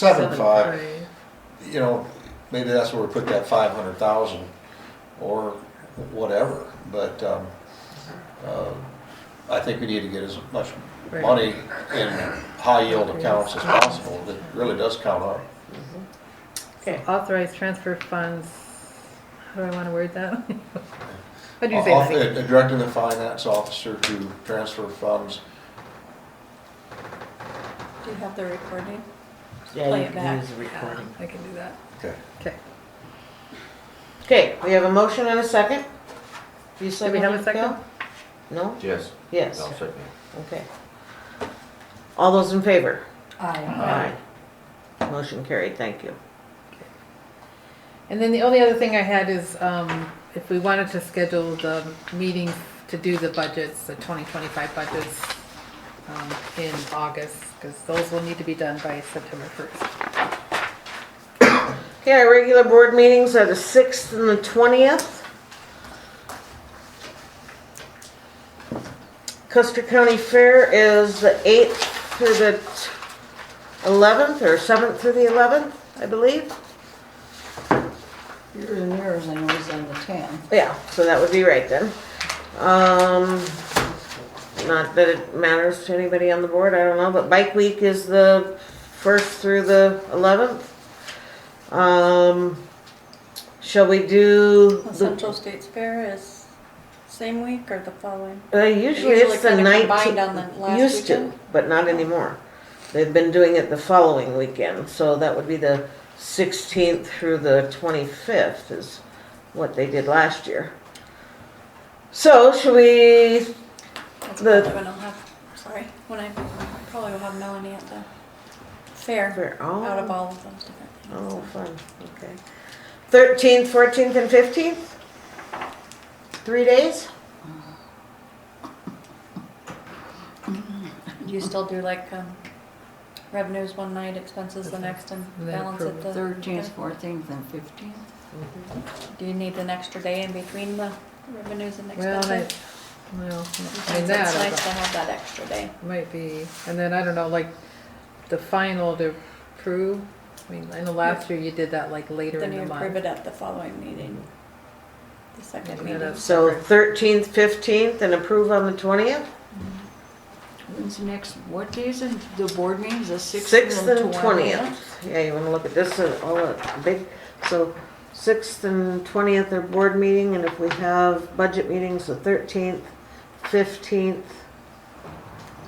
seven five, three. you know, maybe that's where we put that five hundred thousand or whatever, but, um, uh, I think we need to get as much Right. money in high yield accounts as possible, that really does count up. Okay, authorized transfer funds, how do I wanna word that? How do you say Off- that? uh, Directing the finance officer to transfer funds, Do you have the recording? Yeah, Play you it can back. use the recording. I can do that, okay, okay. Okay, we have a motion and a second. You said Do we have a wanted to go? second? No? Yes. Yes, I'll second. okay. All those in favor? Aye. Aye. Motion carried, thank you. And then the only other thing I had is, um, if we wanted to schedule the meetings to do the budgets, the twenty twenty-five budgets, um, in August, cause those will need to be done by September first. Okay, our regular board meetings are the 6th and the 20th. Custer County Fair is the 8th through the t- 11th, or 7th through the 11th, I believe. Yours and yours and yours on the ten. Yeah, so that would be right then. Um, not that it matters to anybody on the board, I don't know, but bike week is the first through the eleventh. Um, shall we do, The the- Central States Fair is same week or the following? uh, usually usually it's the kinda combined nineteenth. on the last Used to, weekend? Oh. but not anymore. They've been doing it the following weekend, so that would be the sixteenth through the twenty-fifth is what they did last year. So should we That's The- probably when I'll have, sorry, when I, probably will have Melanie at the fair, Fair. out of Oh, all of those different things. oh, fun, okay. Thirteenth, fourteenth, and fifteenth? Three days? Do you still do like, um, revenues one night, expenses the next and And then balance it approve the? Thirteenth, fourteenth, and fifteenth. Do you need an extra day in between the revenues and Well, expenses? I, well, I mean, Sometimes that. It's I nice to don't- have that extra day. Might be, and then I don't know, like, the final to prove, I mean, I know last year you did that like later Then in you the approve month. it at the following meeting, the second Yeah, meeting. that's- So thirteenth, fifteenth, and approve on the twentieth? When's the next, what days in the board meetings, the sixth Sixth and and twentieth? twentieth. Yeah, you wanna look at this, uh, all a big, so sixth and twentieth are board meeting, and if we have budget meetings, the thirteenth, fifteenth,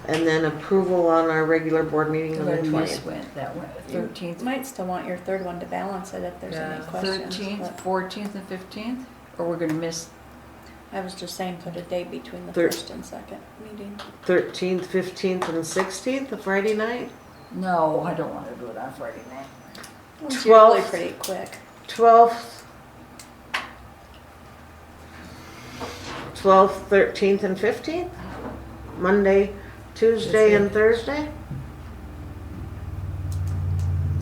and then approval on our regular board meeting on the Then this twentieth. went, that went, thirteenth, Might still want your third one to balance it if there's any Yeah. questions. thirteenth, but fourteenth, and fifteenth? Or we're gonna miss, I was just saying put a day between the Thir- first and second meeting. Thirteenth, fifteenth, and sixteenth, the Friday night. no, I don't wanna do it on Friday night. It's usually Twelfth. pretty quick. 12th, 12th, 13th, and 15th? Monday, Tuesday, and Thursday?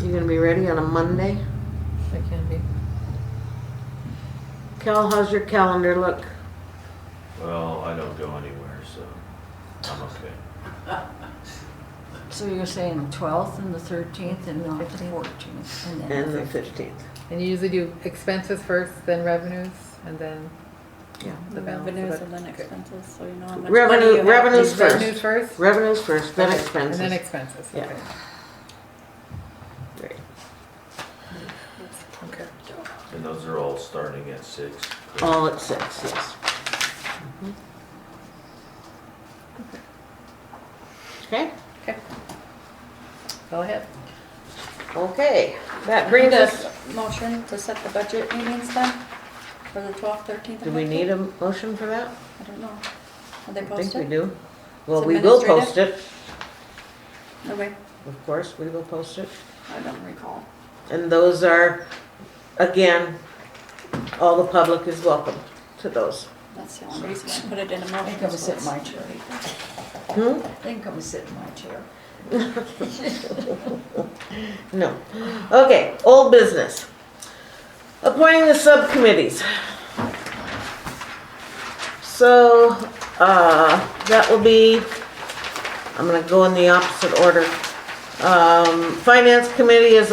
You gonna be ready on a Monday? It can be. Cal, how's your calendar look? Well, Oh, I don't go anywhere, so I'm okay. So you're saying twelfth and the thirteenth and not the fourteenth and then And the the fifteenth? 15th? And you usually do expenses first, then revenues, and then Yeah. the balance. of Revenues it. Mm, and then expenses, so you know how much money Revenue- you have. revenues Is first. Revenues first? Revenues first, then Okay, And then expenses. expenses, Yeah. okay. Right. Okay. And those are all starting at six. All at 6, yes. Mhm. Okay? Go ahead. Okay, that Bring brings us. the motion to set the budget meetings then for the twelfth, thirteenth Do and we need fifteenth? a motion for that? I don't know. Are they I think we posted? do. Well, It's we will post administrative? it, Okay, of course, we will post it. I don't recall. And those are, again, all the public is welcome to those. That's the only reason I put it in a motion. I think I'm gonna sit in my chair. Hmm? I think I'm gonna sit in my chair. No. Okay, old business. Appointing the subcommittees. So, uh, that will be, I'm gonna go in the opposite order. Um, Finance Committee is